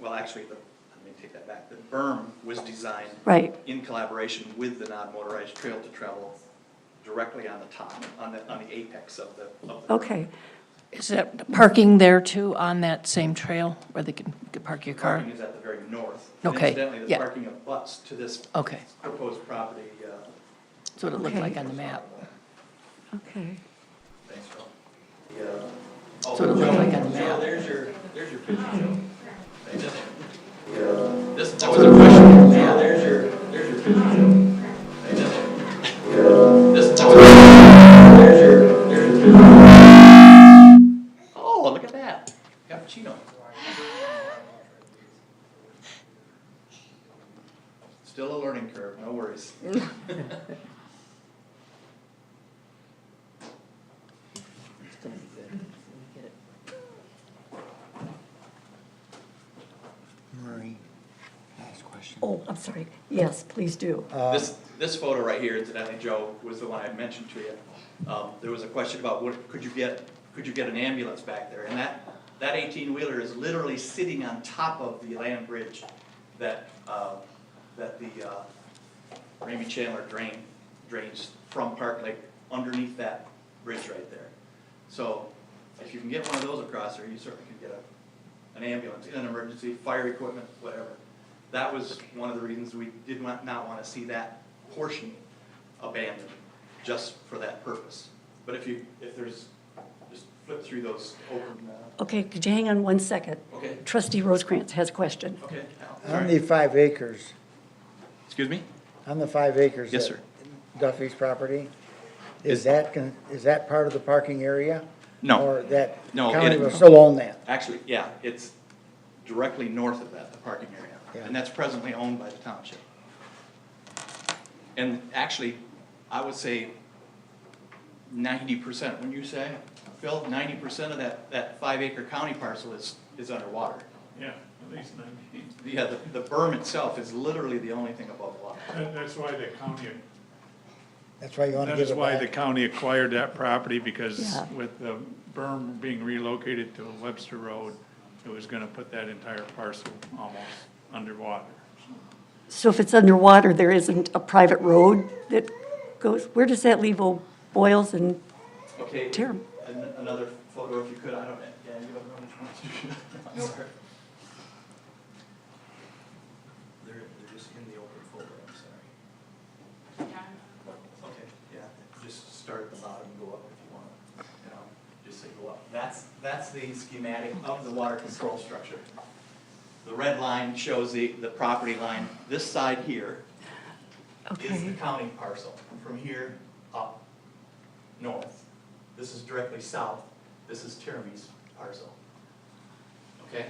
well, actually, the, let me take that back, the berm was designed Right, in collaboration with the non-motorized trail to travel directly on the top, on the, on the apex of the, of the. berm. okay. Is that parking there too, on that same trail where they can, you could park your car? Parking is at the very north. And Okay, Incidentally, the yeah. parking abuts to this Okay, proposed property, uh. that's what it looked Okay. like on the map. Okay. Thanks, Phil. The, uh, That's what it looked like on the Joe, map. Oh, there's your, there's your picture, Joe. This- the, uh, This, that was a question. Joe, there's your, there's your picture, Joe. This, this- that was a question. There's your, there's your picture. Oh, look at that. Cappuccino. Still a learning curve, no worries. Marie, last question. Oh, I'm sorry. Yes, please do. Uh, Oh, This, this photo right here, incidentally, Joe, was the one I mentioned to you. Um, there was a question about what, could you get, could you get an ambulance back there? And that, that eighteen-wheeler is literally sitting on top of the land bridge that, uh, that the, uh, Ramey Chandler drain, drains from Park Lake underneath that bridge right there. So if you can get one of those across there, you certainly can get a, an ambulance, an emergency, fire equipment, whatever. That was one of the reasons we did not, not wanna see that portion abandoned, just for that purpose. But if you, if there's, just flip through those open, uh, Okay, could you hang on one second? okay, Trustee Rosecrans has a question. okay, Al, On sorry. the Uh, five acres, Excuse me? on the five acres. Yes, that sir. Duffy's property, Is- is that, con- is that part of the parking area? No. Or that No, county it- will still own that? Actually, yeah, it's directly north of that, the parking area, Yeah. and that's presently owned by the township. And actually, I would say ninety percent, wouldn't you say, Phil? Ninety percent of that, that five acre county parcel is, is underwater. Yeah, at least nineteen. Yeah, the, the berm itself is literally the only thing above water. That, that's why the county, That's why you want to that give is it why the back? county acquired that property, because Yeah. with the berm being relocated to Webster Road, it was gonna put that entire parcel almost underwater. So if it's underwater, there isn't a private road that goes, where does that leave Old Boils and, Okay. Terrible. an- Another photo if you could, I don't, yeah, you don't know which ones you should. Sorry. They're, they're just in the open folder, I'm sorry. Okay, yeah, just start at the bottom and go up if you want, you know, just say go up. That's, that's the schematic of the water control structure. The red line shows the, the property line, this side here is the okay, county parcel, from here up north. This is directly south, this is Tierney's parcel. Okay?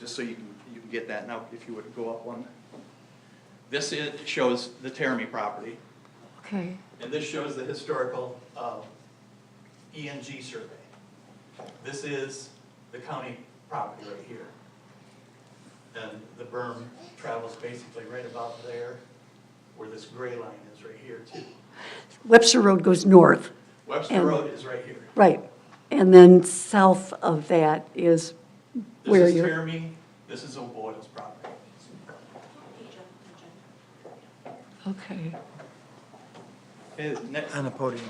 Just so you can, you can get that, now if you would go up one. This is, shows the Tierney property, okay. and this shows the historical, um, ENG survey. This is the county property right here. And the berm travels basically right about there, where this gray line is right here too. Webster Road goes north, Webster And- Road is right here. right. And then south of that is where This is you're, Tierney, this is O'Boyle's property. okay. Okay, next, On the podium.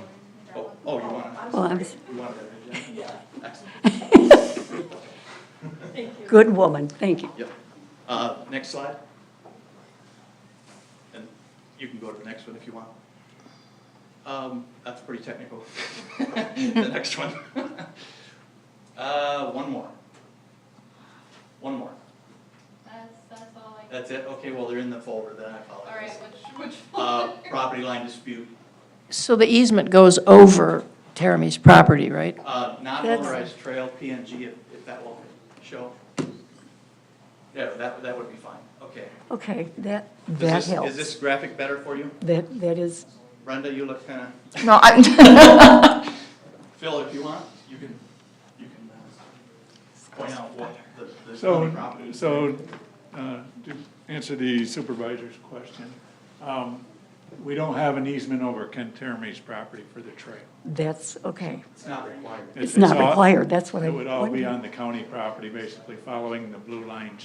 oh, oh, you want, Well, I'm, s- you want that agenda? Yeah. Excellent. good woman, thank you. Yep. Uh, next slide. And you can go to the next one if you want. Um, that's pretty technical. The next one. Uh, one more. One more. That's, that's all I, That's it? Okay, well, they're in the folder, then I all right, apologize. which, which Uh, one? property line dispute, So the easement goes over Terramy's property, right? uh, That's- non-motorized trail, PNG, if, if that will show. Yeah, that, that would be fine, okay. Okay, that, Does that this- Is helps. this graphic better for you? That, that is, Brenda, you look kinda. No, I'm, Phil, if you want, you can, you can uh, point out what the, the zoning So, property. so, uh, to answer the supervisor's question, um, we don't have an easement over Ken Termes' property for the trail. that's, okay. It's not required. It's not all- required, that's what I It would all be wondered. on the county property, basically following the blue line